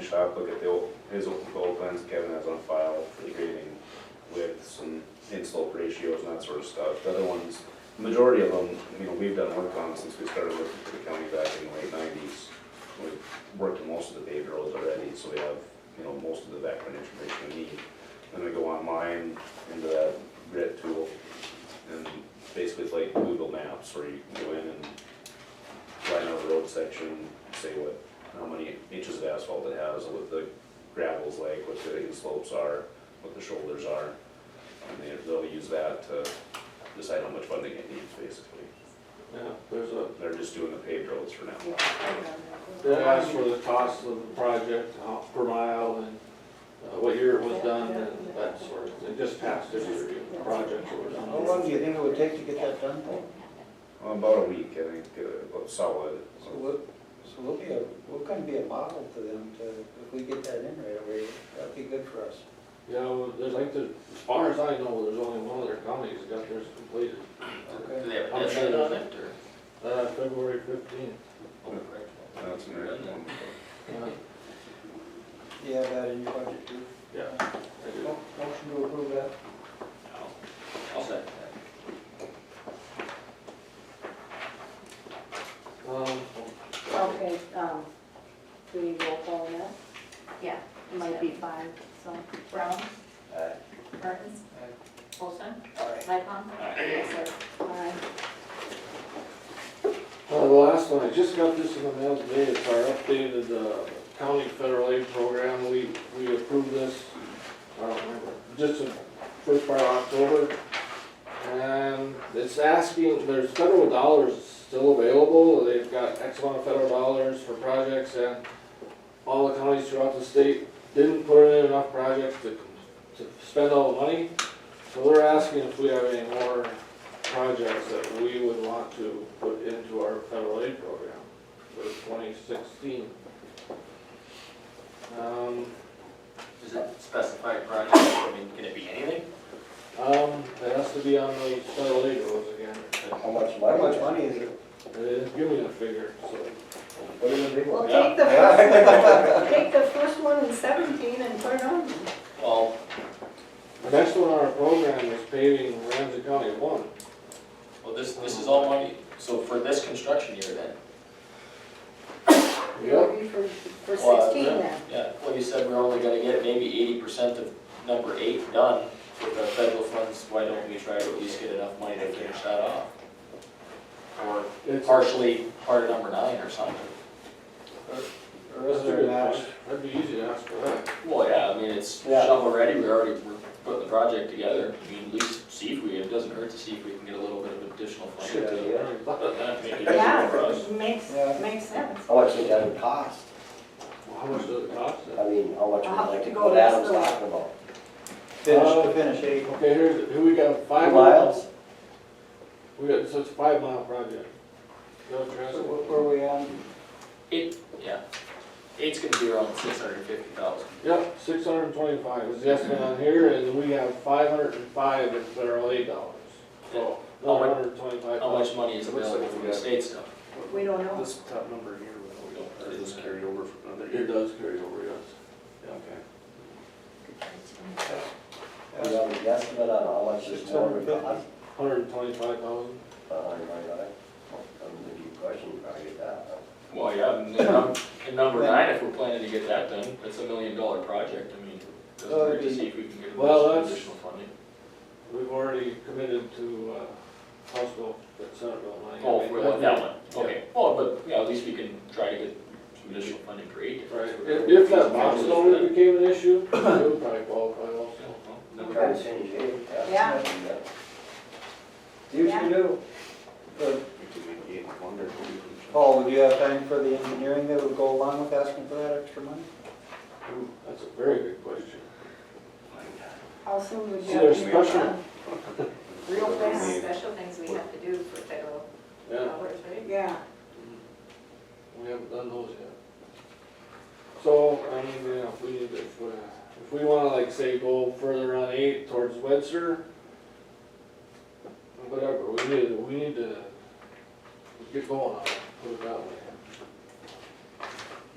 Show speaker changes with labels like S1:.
S1: shop, look at the, old- his old goal plans Kevin has on file for the grading with some inslope ratios and that sort of stuff. The other ones, majority of them, you know, we've done work on since we started working for the county back in the late nineties. We've worked on most of the paved roads already, so we have, you know, most of the background information we need. Then we go online into that grid tool and basically it's like Google Maps where you can go in and line out a road section, say what, how many inches of asphalt it has, what the gravel's like, what the slopes are, what the shoulders are. And they, they'll use that to decide how much funding it needs, basically.
S2: Yeah, there's a,
S1: They're just doing the paved roads for now.
S2: they asked for the cost of the project how- per mile and uh, what year it was done and that sort of, they just passed this year, the project or
S3: How
S2: whatever.
S3: long do you think it would take to get that done?
S1: Well, About a week, I think, uh, about solid.
S3: So we'll, so we'll be, a we're gonna be a model to them to, if we get that in right away, that'd be good for us.
S2: You know, there's like, the- as far as I know, there's only one other county that's got theirs completed,
S3: Okay.
S4: they have
S2: a deadline on
S4: it,
S2: uh, February fifteenth.
S1: That's an American one.
S3: You have that in your budget too?
S2: Yeah. I do.
S3: Mo- Motion to approve that?
S4: I'll second
S2: Um,
S5: Okay, um, do we roll call on that?
S6: Yeah,
S5: It might be five, so.
S6: Brown,
S4: that.
S6: Burns, Olson,
S4: Alright.
S6: Lightcon. Yes,
S5: Aye.
S2: Uh, the last one, I just got this in the mail today, it's our updated, uh, county federal aid program, we, we approved this, I don't remember, just in first part of October. And it's asking, there's federal dollars still available, they've got X amount of federal dollars for projects and all the counties throughout the state didn't put in enough projects to, to spend all the money. So they're asking if we have any more projects that we would want to put into our federal aid program for twenty sixteen. Um,
S4: Is it specified project, I mean, can it be anything?
S2: um, it has to be on the federal aid rules again.
S7: How much
S3: How
S7: money?
S3: much money is it?
S2: They didn't give me the figure, so.
S7: What are the big
S6: Well,
S7: ones?
S6: take the first one, take the first one in seventeen and put it on.
S4: Well,
S2: The next one on our program is paving Ramsey County one.
S4: well, this, this is all money, so for this construction year then?
S2: Yep.
S5: For, for
S4: Well, uh,
S5: sixteen then.
S4: Yeah, well, you said we're only gonna get maybe eighty percent of number eight done with the federal funds, why don't we try to at least get enough money to finish that off? Or
S2: It's-
S4: partially part of number nine or something?
S3: Or is there a match?
S2: That'd be easy to ask for that.
S4: Well, yeah, I mean, it's
S3: Yeah.
S4: shovel ready, we already, we're putting the project together, I mean, at least see if we, it doesn't hurt to see if we can get a little bit of additional funding.
S7: Good
S4: to-
S7: idea.
S4: That'd make it easier for
S6: Yeah,
S4: us.
S6: makes,
S3: Yeah.
S6: makes sense.
S7: How much would that cost?
S2: Well, How much does it cost then?
S7: I mean, how much
S6: I'll have
S7: would like
S6: to
S7: to
S6: go
S7: go
S6: less
S7: Adam's
S6: than that.
S7: talking about?
S3: Finish,
S2: Uh,
S3: to finish, eh?
S2: Okay, here's, who we got, five miles?
S7: Miles?
S2: We got, so it's a five mile project. No trust.
S3: So wh- where are we on?
S4: Eight, yeah, eight's gonna be around six hundred and fifty thousand.
S2: Yep, six hundred and twenty-five is the estimate on here, and we have five hundred and five in federal aid dollars. So,
S4: How much-
S2: another hundred and twenty-five
S4: How much
S2: thousand.
S4: money is available from the state stuff?
S5: We don't know.
S1: This top number here, we don't, or does this carry over from another
S2: It
S1: year?
S2: does carry over, yes.
S1: Okay.
S7: Do you have an estimate on how much this more would cost?
S2: Hundred and twenty-five thousand.
S7: Uh, I might not, I'm gonna be questioning probably that.
S4: Well, yeah, and then num- and number nine, if we're planning to get that done, that's a million dollar project, I mean, doesn't
S3: Well,
S4: hurt to
S3: it'd be-
S4: see if we can get
S2: Well,
S4: additional
S2: that's-
S4: additional funding.
S2: We've already committed to, uh, Hospital, that Senate bill money.
S4: Oh, for that that one, okay, well, but, yeah, at least we can try to get some additional funding for eight.
S2: Right, if, if that box zone became an issue, it would probably qualify also.
S7: I'm trying to change it,
S6: Yeah.
S3: Do what you do. Uh,
S1: We can get one or two.
S3: Paul, would you have time for the engineering that would go along with asking for that extra money?
S2: Ooh, That's a very good question.
S5: How soon would
S2: So
S5: you have
S2: there's
S5: to
S2: special,
S6: Real
S1: Yeah.
S6: fast, special things we have to do for federal
S2: yeah.
S6: dollars, right?
S5: Yeah,
S2: Mm-hmm. We haven't done those yet. So, I mean, you know, if we, need to- if, uh, if we wanna like say go further on eight towards Webster, whatever, we need, to- we need to get going on it, put it that way.